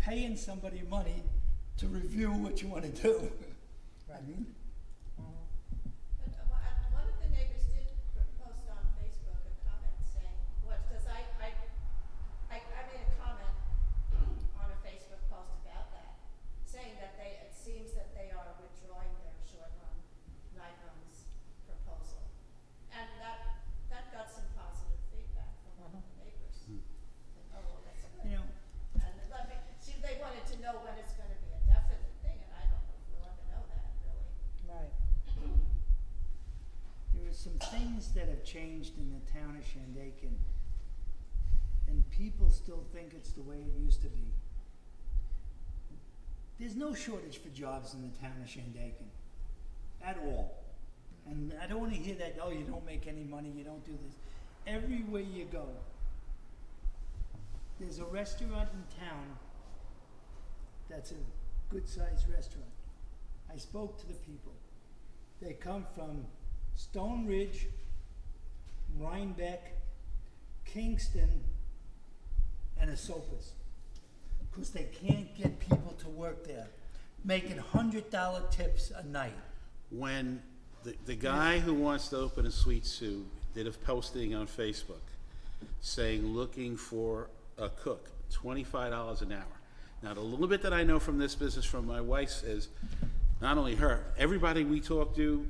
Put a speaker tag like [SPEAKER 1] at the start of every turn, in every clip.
[SPEAKER 1] paying somebody money to review what you want to do. I mean,
[SPEAKER 2] But uh, well, uh, one of the neighbors did pr- post on Facebook a comment saying, what, does I, I, I, I made a comment on a Facebook post about that, saying that they, it seems that they are withdrawing their short run, nine runs proposal. And that, that got some positive feedback from one of the neighbors. Like, oh, well, that's
[SPEAKER 1] you
[SPEAKER 2] good.
[SPEAKER 1] know,
[SPEAKER 2] And let me, see, they wanted to know when it's gonna be a definite thing, and I don't know if we'll ever know that, really.
[SPEAKER 3] Right.
[SPEAKER 1] there are some things that have changed in the town of Shandaken, and people still think it's the way it used to be. There's no shortage for jobs in the town of Shandaken, at all. And I don't want to hear that, oh, you don't make any money, you don't do this. Everywhere you go, there's a restaurant in town that's a good sized restaurant. I spoke to the people. They come from Stone Ridge, Rhinebeck, Kingston, and Esopus. Because they can't get people to work there, making $100 tips a night.
[SPEAKER 4] when the, the guy who wants to open a sweet soup did a posting on Facebook saying looking for a cook, twenty-five dollars an hour. Now, the little bit that I know from this business from my wife is, not only her, everybody we talk to,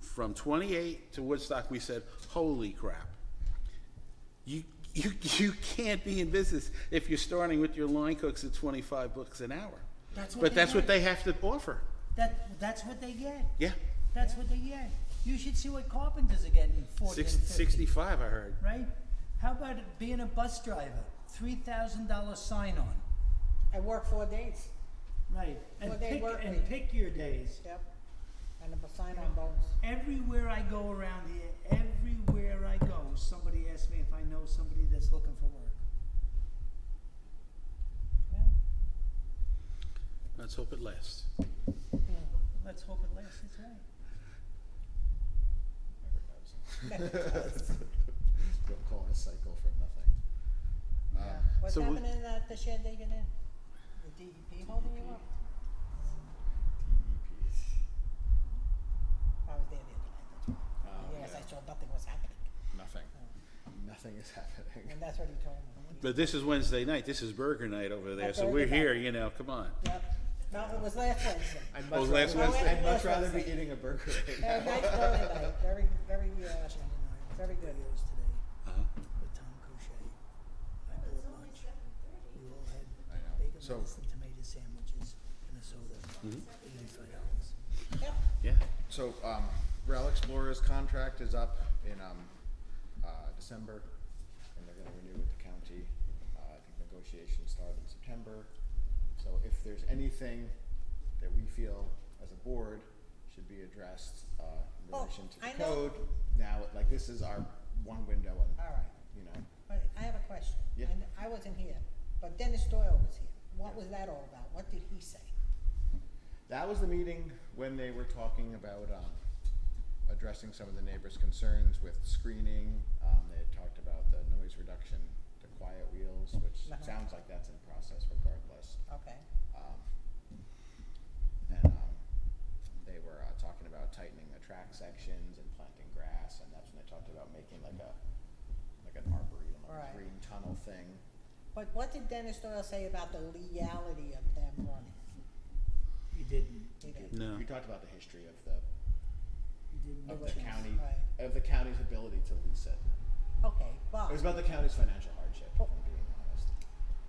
[SPEAKER 4] from twenty-eight to Woodstock, we said, holy crap. You, you, you can't be in business if you're starting with your line cooks at twenty-five bucks an hour.
[SPEAKER 1] That's what they
[SPEAKER 4] But that's what
[SPEAKER 1] make.
[SPEAKER 4] they have to offer,
[SPEAKER 1] That, that's what they get.
[SPEAKER 4] yeah.
[SPEAKER 1] That's what they get. You should see what carpenters are getting 40
[SPEAKER 4] Six,
[SPEAKER 1] and 50.
[SPEAKER 4] sixty-five, I heard.
[SPEAKER 1] Right? How about being a bus driver? $3,000 sign on.
[SPEAKER 3] I work four days,
[SPEAKER 1] Right. And,
[SPEAKER 3] Well, they
[SPEAKER 1] pick,
[SPEAKER 3] work
[SPEAKER 1] and
[SPEAKER 3] week.
[SPEAKER 1] pick your days.
[SPEAKER 3] yep, and a sign on bonus.
[SPEAKER 1] Everywhere I go around here, everywhere I go, somebody asks me if I know somebody that's looking for work.
[SPEAKER 3] Yeah.
[SPEAKER 4] Let's hope it lasts.
[SPEAKER 1] Let's hope it lasts. That's right.
[SPEAKER 5] Don't call it a cycle for nothing.
[SPEAKER 3] Yeah.
[SPEAKER 5] Uh,
[SPEAKER 3] What's
[SPEAKER 4] so we-
[SPEAKER 3] happening at the Shandaken Inn? The DEP holding you up?
[SPEAKER 5] E DEPs.
[SPEAKER 3] I was there the other night,
[SPEAKER 5] Oh,
[SPEAKER 3] that's why. Yes, I saw nothing was happening,
[SPEAKER 5] Nothing. Nothing is happening.
[SPEAKER 3] and that's what he told me.
[SPEAKER 4] But this is Wednesday night. This is burger night over there, so
[SPEAKER 3] Burger
[SPEAKER 4] we're
[SPEAKER 3] night.
[SPEAKER 4] here, you know, come on.
[SPEAKER 3] Yep, no, it was last Wednesday.
[SPEAKER 5] I'd
[SPEAKER 4] Oh,
[SPEAKER 5] much
[SPEAKER 4] last
[SPEAKER 5] rather,
[SPEAKER 3] Wednesday.
[SPEAKER 5] I'd much rather be
[SPEAKER 3] Wednesday.
[SPEAKER 5] eating a burger right now.
[SPEAKER 3] Very nice Thursday night, very, very, uh, very good.
[SPEAKER 1] Videos today
[SPEAKER 4] Uh-huh.
[SPEAKER 1] with Tom Couchet. I
[SPEAKER 2] It's
[SPEAKER 1] bought
[SPEAKER 2] only
[SPEAKER 1] lunch.
[SPEAKER 2] seven thirty.
[SPEAKER 1] We all had
[SPEAKER 5] I know.
[SPEAKER 1] bacon,
[SPEAKER 5] So- Mm-hmm.
[SPEAKER 1] lettuce, and tomato sandwiches and a soda. Eighty-five dollars.
[SPEAKER 3] Yep,
[SPEAKER 4] Yeah.
[SPEAKER 5] So, um, Rail Explorer's contract is up in, um, uh, December, and they're gonna renew with the county. Uh, I think negotiations start in September. So if there's anything that we feel as a board should be addressed, uh, in
[SPEAKER 3] Well,
[SPEAKER 5] relation to the
[SPEAKER 3] Oh, I know-
[SPEAKER 5] code, now, like, this is our one window on,
[SPEAKER 3] all right.
[SPEAKER 5] you know,
[SPEAKER 3] But I have a question.
[SPEAKER 5] Yeah.
[SPEAKER 3] And I wasn't here, but Dennis Doyle was here. What was that all about? What did he say?
[SPEAKER 5] That was the meeting when they were talking about, um, addressing some of the neighbors' concerns with screening. Um, they had talked about the noise reduction, the quiet wheels, which
[SPEAKER 3] Uh-huh.
[SPEAKER 5] sounds like that's in process regardless.
[SPEAKER 3] Okay,
[SPEAKER 5] Um, and, um, they were, uh, talking about tightening the track sections and planting grass, and that's when they talked about making like a, like an arboretum, like
[SPEAKER 3] Right.
[SPEAKER 5] a green tunnel thing.
[SPEAKER 3] but what did Dennis Doyle say about the legality of them running?
[SPEAKER 1] He didn't.
[SPEAKER 3] He didn't.
[SPEAKER 4] No.
[SPEAKER 5] We talked about the history of the,
[SPEAKER 1] He didn't.
[SPEAKER 5] of
[SPEAKER 3] Which
[SPEAKER 5] the
[SPEAKER 3] is-
[SPEAKER 5] county,
[SPEAKER 3] right.
[SPEAKER 5] of the county's ability to lease it.
[SPEAKER 3] Okay, but,
[SPEAKER 5] It was about the county's financial hardship, if I'm being honest,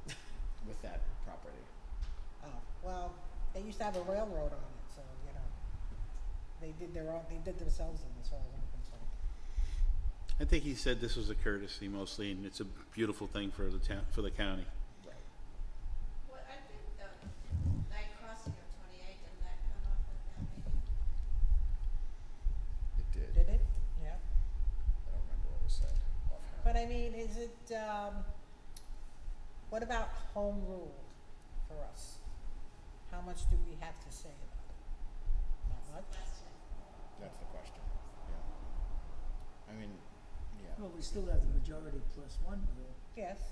[SPEAKER 5] with that property.
[SPEAKER 3] oh, well, they used to have a railroad on it, so, you know, they did their own, they did themselves in as far as I'm concerned.
[SPEAKER 4] I think he said this was a courtesy mostly, and it's a beautiful thing for the town, for the county.
[SPEAKER 5] Right.
[SPEAKER 2] Well, I think the night crossing of twenty-eight, didn't that come up at that meeting?
[SPEAKER 5] It did.
[SPEAKER 3] Did it? Yeah.
[SPEAKER 5] I don't remember what was said offhand.
[SPEAKER 3] But I mean, is it, um, what about home rule for us? How much do we have to say about it? Not much?
[SPEAKER 2] Question.
[SPEAKER 5] That's the question, yeah. I mean, yeah.
[SPEAKER 1] Well, we still have the majority plus one rule.
[SPEAKER 3] Yes.